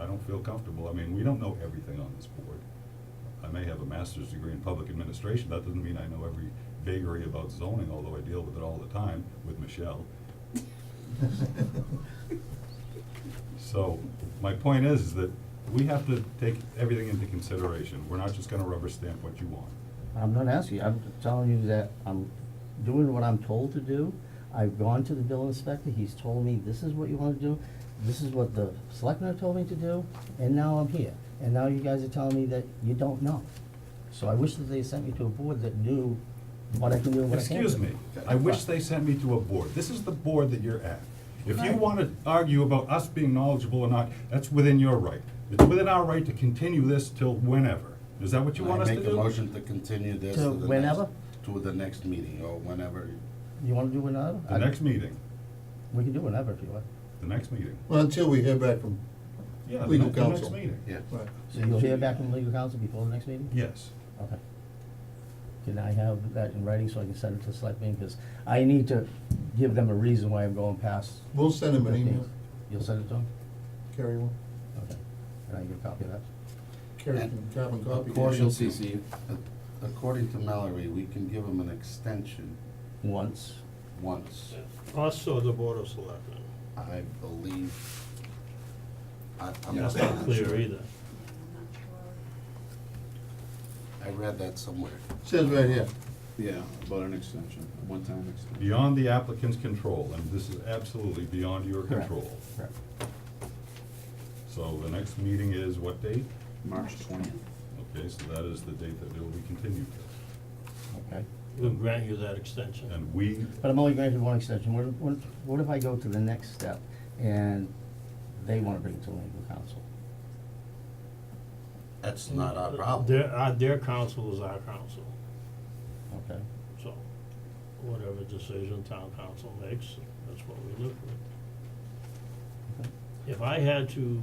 don't feel comfortable. I mean, we don't know everything on this board. I may have a master's degree in public administration, that doesn't mean I know every vagary about zoning, although I deal with it all the time with Michelle. So, my point is, is that we have to take everything into consideration. We're not just gonna rubber stamp what you want. I'm not asking you, I'm telling you that I'm doing what I'm told to do. I've gone to the bill inspector, he's told me, this is what you wanna do, this is what the selectmen told me to do, and now I'm here. And now you guys are telling me that you don't know. So I wish that they sent me to a board that knew what I can do and what I can't do. Excuse me, I wish they sent me to a board. This is the board that you're at. If you Right. wanna argue about us being knowledgeable or not, that's within your right. It's within our right to continue this till whenever. Is that what you want us to I make a do? motion to continue this To to the next. whenever? To the next meeting, or whenever, You wanna do another? The next meeting, We can do another if you want. the next meeting. Well, until we hear back from, Yeah, the Legal ne- the next counsel. meeting. yeah. right. So you'll hear back from legal counsel before the next meeting? Yes. Okay. Can I have that in writing so I can send it to the selectmen, because I need to give them a reason why I'm going past. We'll send him an email, You'll send it to them? Carrie will, Okay. Can I get a copy of that? Carrie can grab and copy. According to, according to Mallory, we can give them an extension Once. once, Us or the Board of Selectmen? I believe. I, I'm not That's not clear sure. either. I read that somewhere. Says right here, Yeah, about an extension, a one-time extension. Beyond the applicant's control, and this is absolutely beyond your Correct. control. Correct. So the next meeting is what date? March twentieth. Okay, so that is the date that it will be continued. to. Okay. We'll grant you that extension. And we, But I'm only granted one extension. What, if- what, if- what if I go to the next step and they wanna bring it to legal counsel? That's not our problem. Their, uh, their council is our council, Okay. so whatever decision town council makes, that's what we live with. If I had to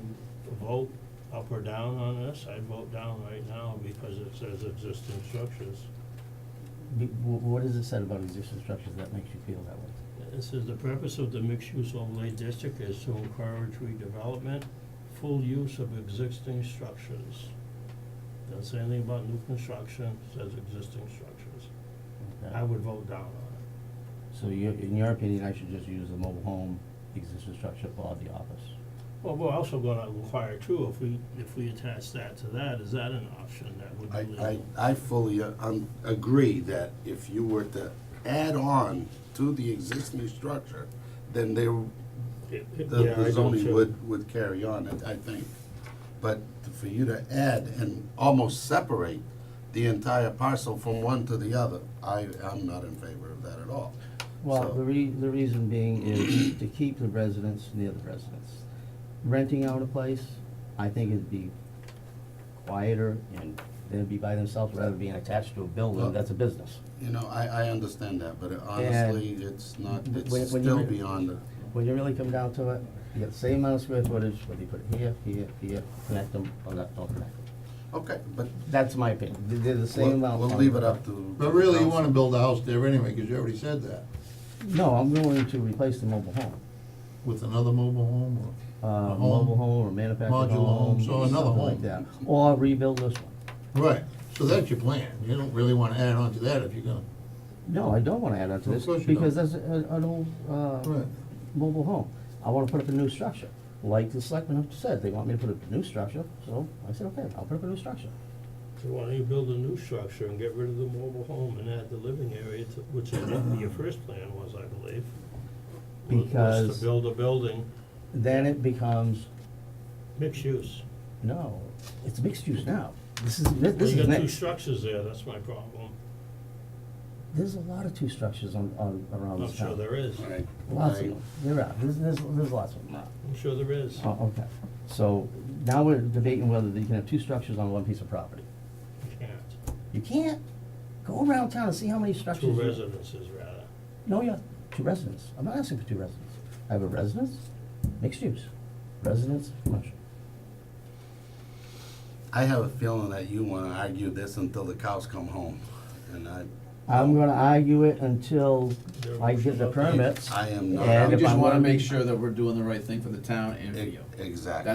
vote up or down on this, I'd vote down right now because it says existing structures. Be- wh- what is it said about existing structures that makes you feel that way? It says the purpose of the mixed-use overlay district is to encourage redevelopment, full use of existing structures. Doesn't say anything about new construction, says existing structures. Okay. I would vote down on So you, in your opinion, I should just use the mobile home existing structure or the office? it. Well, we're also gonna require too, if we, if we attach that to that, is that an option that would I, be I, legal? I fully, uh, um, agree that if you were to add on to the existing structure, then there It- it- the, yeah, I the do zoning too. would, would carry on, I- I think. But for you to add and almost separate the entire parcel from one to the other, I, I'm not in favor of that at all. Well, So- the re, the reason being is to keep the residents near the residents. Renting out a place, I think it'd be quieter and they'd be by themselves rather than being attached to a building that's a business. You know, I, I understand that, but honestly, it's not, When- it's when you still re- beyond the, When you really come down to it, you get the same amount of square footage, whether you put it here, here, here, connect them or not, don't connect them. okay, but That's my opinion. They- They're the we'll, same amount. we'll on- leave it up to. but really, you council. wanna build a house there anyway, cause you already said that, No, I'm going to replace the mobile home. with another mobile home uh, A home, mobile home or manufactured home. modular home, so another something like home. that. Or rebuild this one. or, right, so that's your plan, you don't really wanna add on to that if you're gonna, No, I don't wanna add on to Of this, course you because don't. that's a- an old, uh, right, mobile home. I wanna put up a new structure, like the selectmen have said, they want me to put up a new structure, so I said, okay, I'll put up a new structure. So why don't you build a new structure and get rid of the mobile home and add the living area to, which is what your first plan was, I believe. was- Was Because- to build a building, Then it becomes, mixed use. no, it's mixed use now. This is, this Well, this you is, Oh, got two next- structures there, that's my problem. there's a lot of two structures on, on, around I'm this sure town. there is. All right. Lots of I- them, there are, there's, there's, there's lots of them now. I'm sure there is. Oh, okay, so now we're debating whether you can have two structures on one piece of property. You can't. You can't go around town and see how many structures. Two you- residences, rather. No, yeah, two residents. I'm not asking for two residents. I have a residence, mixed use, residence, commercial. I have a feeling that you wanna argue this until the cows come home, and I, I'm gonna argue it until There I was get the nothing. permits. I am And We not. if I just wanna wanna be- make sure that we're doing the right thing for the town and for Ex- you. Exactly.